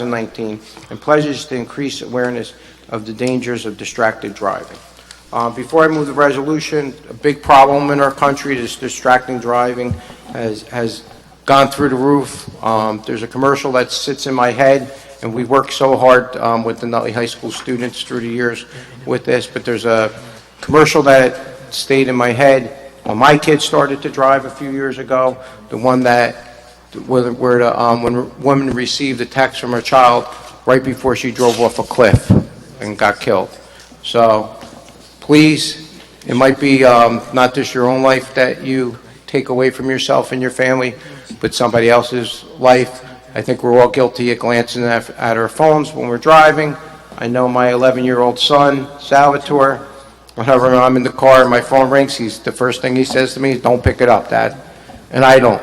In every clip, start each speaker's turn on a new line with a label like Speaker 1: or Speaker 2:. Speaker 1: 2019, and pledges to increase awareness of the dangers of distracted driving. Uh, Before I move the resolution, a big problem in our country is distracting driving has has gone through the roof. Um, There's a commercial that sits in my head, and we work so hard um, with the Nutley High School students through the years with this, but there's a commercial that stayed in my head when my kids started to drive a few years ago, the one that where, where the, um, when a woman received a text from her child right before she drove off a cliff and got killed. So, please, it might be um, not just your own life that you take away from yourself and your family, but somebody else's life. I think we're all guilty of glancing at, at our phones when we're driving. I know my 11-year-old son, Salvatore, whenever I'm in the car and my phone rings, he's, the first thing he says to me is, "Don't pick it up, Dad." And I don't.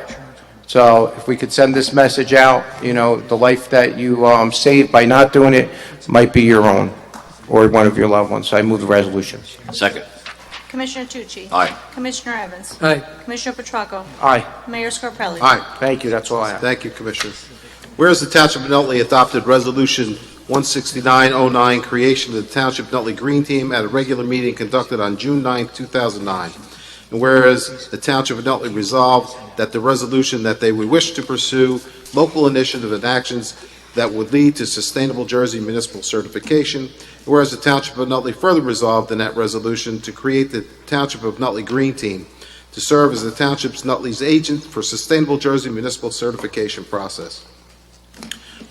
Speaker 1: So if we could send this message out, you know, the life that you um, saved by not doing it might be your own or one of your loved ones. So I move the resolution.
Speaker 2: Second.
Speaker 3: Commissioner Tucci?
Speaker 2: Aye.
Speaker 3: Commissioner Evans?
Speaker 4: Aye.
Speaker 3: Commissioner Petracco?
Speaker 1: Aye.
Speaker 3: Mayor Scarpelli?
Speaker 4: Aye.
Speaker 1: Thank you, that's all I have.
Speaker 4: Thank you, Commissioner. Whereas the Township of Nutley adopted Resolution 16909, creation of the Township Nutley Green Team at a regular meeting conducted on June 9, 2009. And whereas the Township of Nutley resolved that the resolution that they would wish to pursue local initiative and actions that would lead to sustainable Jersey municipal certification. Whereas the Township of Nutley further resolved in that resolution to create the Township of Nutley Green Team to serve as the township's Nutley's agent for Sustainable Jersey Municipal Certification Process.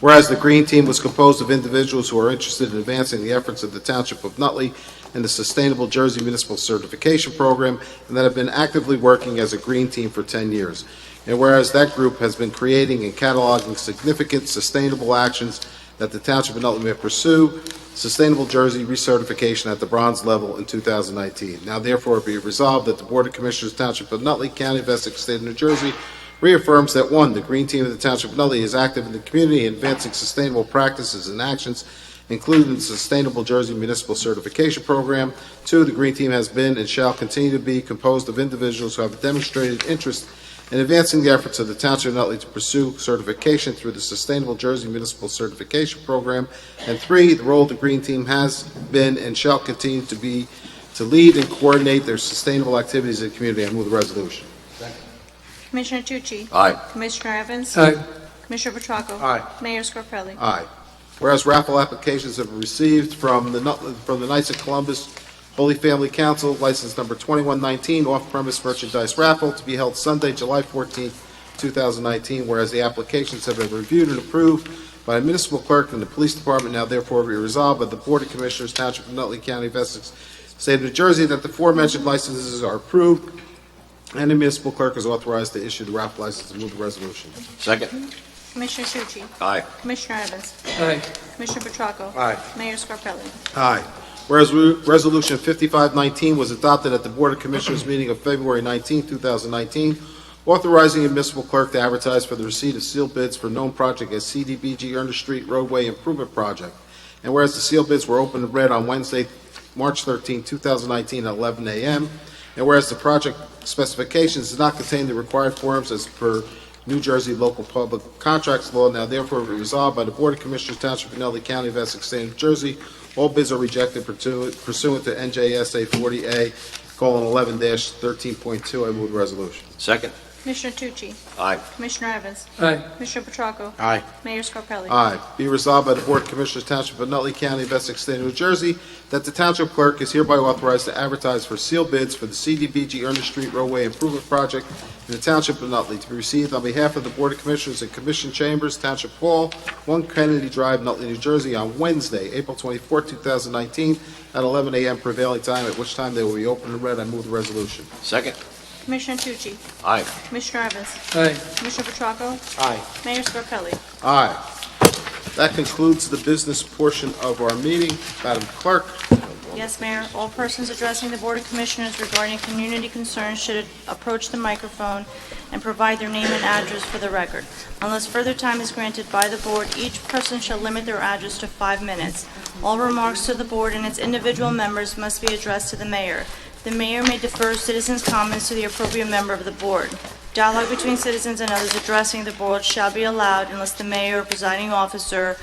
Speaker 4: Whereas the Green Team was composed of individuals who are interested in advancing the efforts of the Township of Nutley in the Sustainable Jersey Municipal Certification Program and that have been actively working as a Green Team for 10 years. And whereas that group has been creating and cataloging significant sustainable actions that the Township of Nutley may pursue, Sustainable Jersey recertification at the bronze level in 2019. Now therefore be it resolved that the Board of Commissioners Township of Nutley, County of Essex, State of New Jersey reaffirms that, one, the Green Team of the Township of Nutley is active in the community in advancing sustainable practices and actions, including the Sustainable Jersey Municipal Certification Program. Two, the Green Team has been and shall continue to be composed of individuals who have demonstrated interest in advancing the efforts of the Township of Nutley to pursue certification through the Sustainable Jersey Municipal Certification Program. And three, the role the Green Team has been and shall continue to be to lead and coordinate their sustainable activities in the community. I move the resolution.
Speaker 3: Commissioner Tucci?
Speaker 2: Aye.
Speaker 3: Commissioner Evans? Commissioner Petracco?
Speaker 1: Aye.
Speaker 3: Mayor Scarpelli?
Speaker 4: Aye. Whereas raffle applications have been received from the, Nut- from the Knights of Columbus Holy Family Council, license number 2119, off-premise merchandise raffle to be held Sunday, July 14th, 2019. Whereas the applications have been reviewed and approved by the municipal clerk and the police department, now therefore be resolved by the Board of Commissioners, Township of Nutley County, of Essex, State of New Jersey, that the aforementioned licenses are approved and the municipal clerk is authorized to issue the raffle license and move the resolution.
Speaker 2: Second.
Speaker 3: Commissioner Tucci?
Speaker 2: Aye.
Speaker 3: Commissioner Evans? Commissioner Petracco?
Speaker 1: Aye.
Speaker 3: Mayor Scarpelli?
Speaker 4: Aye. Whereas Re- Resolution 5519 was adopted at the Board of Commissioners meeting of February 19, 2019, authorizing the municipal clerk to advertise for the receipt of sealed bids for known project as CDBG Ernest Street Roadway Improvement Project. And whereas the sealed bids were opened and read on Wednesday, March 13, 2019, at 11 a.m., and whereas the project specifications did not contain the required forms as per New Jersey Local Public Contracts Law, now therefore be resolved by the Board of Commissioners Township of Nutley County of Essex State of New Jersey, all bids are rejected pursuant pursuant to NJSA 40A, colon, 11 dash 13.2. I move the resolution.
Speaker 2: Second.
Speaker 3: Commissioner Tucci?
Speaker 2: Aye.
Speaker 3: Commissioner Evans? Commissioner Petracco?
Speaker 1: Aye.
Speaker 3: Mayor Scarpelli?
Speaker 4: Aye. Be resolved by the Board of Commissioners Township of Nutley County of Essex State of New Jersey that the Township Clerk is hereby authorized to advertise for sealed bids for the CDBG Ernest Street Roadway Improvement Project in the Township of Nutley to be received on behalf of the Board of Commissioners and Commission Chambers, Township Hall, 1 Kennedy Drive, Nutley, New Jersey, on Wednesday, April 24, 2019, at 11 a.m. prevailing time, at which time they will be open and read. I move the resolution.
Speaker 2: Second.
Speaker 3: Commissioner Tucci?
Speaker 2: Aye.
Speaker 3: Commissioner Evans? Commissioner Petracco?
Speaker 1: Aye.
Speaker 3: Mayor Scarpelli?
Speaker 4: Aye. That concludes the business portion of our meeting. Madam Clerk?
Speaker 3: Yes, Mayor. All persons addressing the Board of Commissioners regarding community concerns should approach the microphone and provide their name and address for the record. Unless further time is granted by the Board, each person shall limit their address to five minutes. All remarks to the Board and its individual members must be addressed to the Mayor. The Mayor may defer citizens' comments to the appropriate member of the Board. Dialogue between citizens and others addressing the board shall be allowed unless the mayor or presiding officer